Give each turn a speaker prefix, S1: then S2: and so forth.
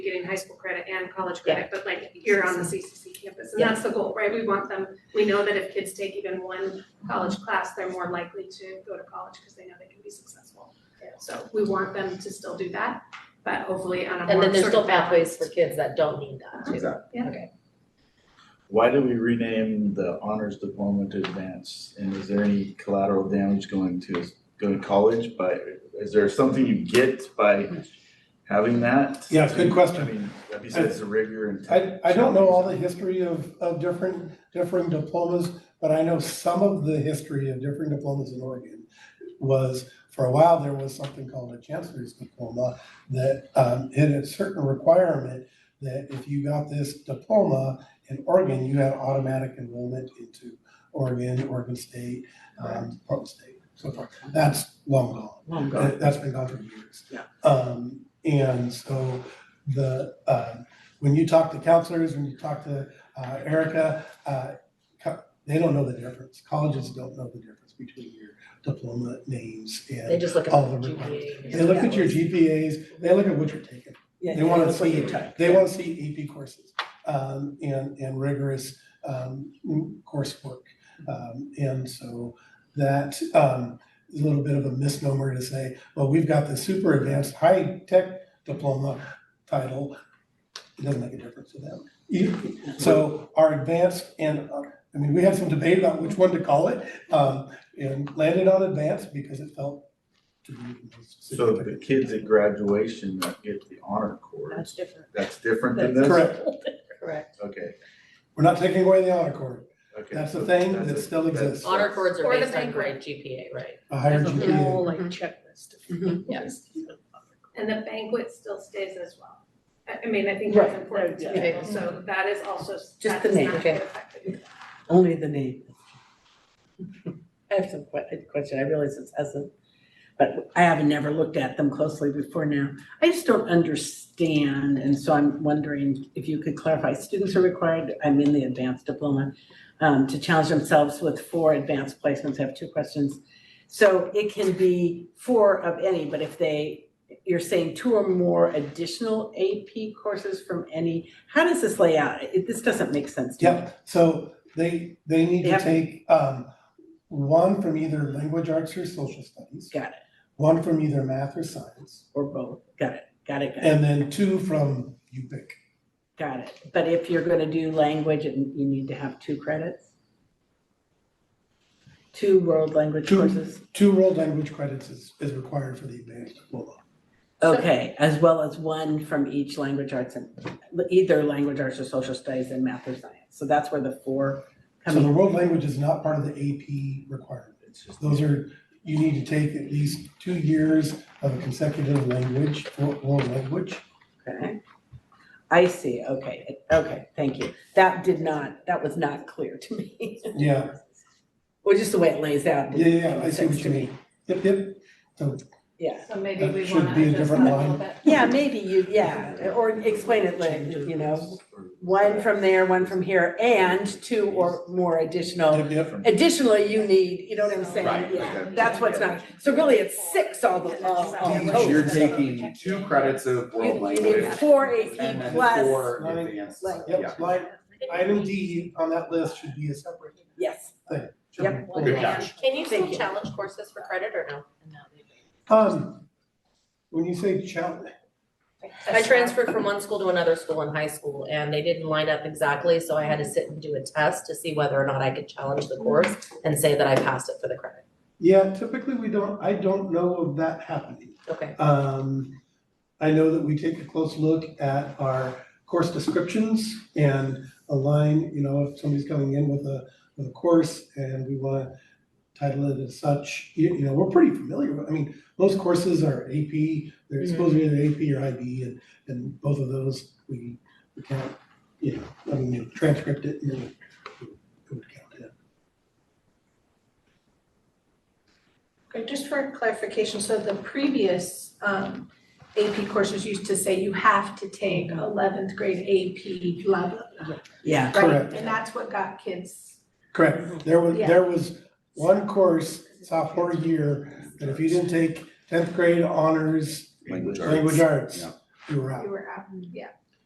S1: high school credit and college
S2: Yeah.
S1: credit, but like here on the CCC campus, and
S2: Yeah.
S1: that's the goal, right? We want them, we know that if kids take even one college class, they're more likely to go to college because they know they can be successful.
S2: Yeah.
S1: So we want them to still do that, but hopefully on a more
S2: And then there's
S1: sort
S2: still
S1: of
S2: pathways for kids that don't need that too.
S3: Exactly.
S1: Yeah.
S2: Okay.
S3: Why did we rename the honors diploma to advanced? And is there any collateral damage going to, going to college by, is there something you get by having that?
S4: Yeah, it's a good question.
S3: I mean, besides the rigor and.
S4: I, I don't know all the history of, of different, different diplomas, but I know some of the history of different diplomas in Oregon was, for a while, there was something called a chancellor's diploma that, um, had a certain requirement that if you got this diploma in Oregon, you had automatic enrollment into Oregon, Oregon State, um, Portland State, so far. That's long gone.
S2: Long
S4: That- That's been gone for years.
S2: Yeah.
S4: Um, and so the, um, when you talk to counselors, when you talk to uh, Erica, uh, co- they don't know the difference. Colleges don't know the difference between your diploma names
S2: They
S4: and
S2: just look at
S4: all the
S2: the
S4: requirements.
S2: GPA.
S4: They look at your GPAs, they look at what you're taking.
S5: Yeah,
S4: They wanna
S5: that's what
S4: see-
S5: you took.
S4: They want to see AP courses um, and, and rigorous um, coursework. Um, And so that um, is a little bit of a misnomer to say, well, we've got the super advanced high-tech diploma title. It doesn't make a difference to them. You- So our advanced and, uh, I mean, we had some debate about which one to call it um, and landed on advanced because it felt to be the most
S3: So the
S4: significant.
S3: kids at graduation that get the honor cord,
S2: That's different.
S3: that's different than this?
S4: Correct.
S2: Correct.
S3: Okay,
S4: We're not taking away the honor cord.
S3: okay.
S4: That's the
S3: so
S4: thing
S3: that's
S4: that
S3: a-
S4: still
S3: that's-
S4: exists.
S2: Honor cords are
S1: Or the
S2: based on
S1: bank
S2: grade
S1: rate.
S2: GPA, right?
S4: A higher
S2: There's a
S4: GPA.
S2: whole, like
S5: Mhm.
S2: checklist.
S5: Mhm.
S2: Yes.
S1: And the banquet still stays as well. I, I mean, I think that's
S5: Right.
S1: important to
S5: Yeah.
S1: people, so that is also, that
S5: the
S1: does
S5: name,
S1: not
S2: okay.
S1: get affected.
S5: Only the name. I have some que- a question, I realize this hasn't, but I haven't never looked at them closely before now. I just don't understand, and so I'm wondering if you could clarify, students are required, I'm in the advanced diploma, um, to challenge themselves with four advanced placements, I have two questions. So it can be four of any, but if they, you're saying two or more additional AP courses from any, how does this lay out? It- This doesn't make sense to me.
S4: Yep, so they, they need to
S5: Yep.
S4: take, um, one from either language arts or social studies.
S5: Got it.
S4: One from either math or science,
S5: Or both, got it, got it, got it,
S4: and then two from you pick.
S5: got it. But if you're gonna do language, it- you need to have two credits? Two world language
S4: Two.
S5: courses,
S4: Two world language credits is, is required for the advanced diploma.
S1: So-
S5: okay, as well as one from each language arts and, either language arts or social studies and math or science. So that's where the four
S4: So
S5: come
S4: the
S5: in.
S4: world language is not part of the AP requirement.
S3: It's just-
S4: Those are, you need to take at least two years of a consecutive language, world world language.
S5: Okay. I see, okay, okay, thank you. That did not, that was not clear to me.
S4: Yeah,
S5: Or just the way it lays out.
S4: yeah,
S5: didn't
S4: yeah,
S5: make
S4: I see
S5: sense
S4: what
S5: to
S4: you mean. Yep, yep.
S5: Yeah.
S1: So maybe
S4: That
S1: we
S4: should
S1: wanna
S4: be a
S1: adjust that a
S4: different
S1: little
S4: line.
S1: bit.
S5: Yeah, maybe you, yeah, or explain it like, you know, one from there, one from here, and two or more additional.
S4: Yep, yep.
S5: Additionally, you need, you know what I'm
S6: Right,
S5: saying? Yeah,
S6: okay.
S5: that's what's not, so really it's six all the, all, all
S4: Damn it.
S5: total.
S6: You're taking two credits of
S5: Oh, You-
S6: world
S5: You need
S6: language
S5: four
S6: and
S5: AP
S6: then
S5: plus,
S6: four advanced,
S5: Right.
S6: yeah.
S4: Yep, line, item D on that list should be a separate.
S5: yes.
S4: should be
S5: Yep.
S4: pulled
S6: Good
S4: out.
S6: catch.
S2: Can you
S5: Thank
S2: still
S5: you.
S2: challenge courses for credit or no?
S4: Um, when you say challenge,
S2: I transferred from one school to another school in high school and they didn't line up exactly, so I had to sit and do a test to see whether or not I could challenge the course and say that I passed it for the credit.
S4: yeah, typically we don't, I don't know of that happening.
S2: Okay.
S4: Um, I know that we take a close look at our course descriptions and align, you know, if somebody's coming in with a, with a course and we wanna title it as such, you, you know, we're pretty familiar, with I mean, most courses are AP, they're supposed to be either AP or IB, and, and both of those, we, we count, you know, I mean, you transcript it, and then we we would count it.
S7: Okay, just for clarification, so the previous um AP courses used to say you have to take eleventh grade AP blah blah blah,
S5: Yeah,
S4: Correct.
S7: right? And that's what got kids,
S4: Correct, there was,
S7: Yeah.
S4: there was one course sophomore year, that if you didn't take tenth grade honors,
S3: Language
S4: language arts,
S3: yeah.
S4: you were
S7: you
S4: out.
S7: were out, yeah.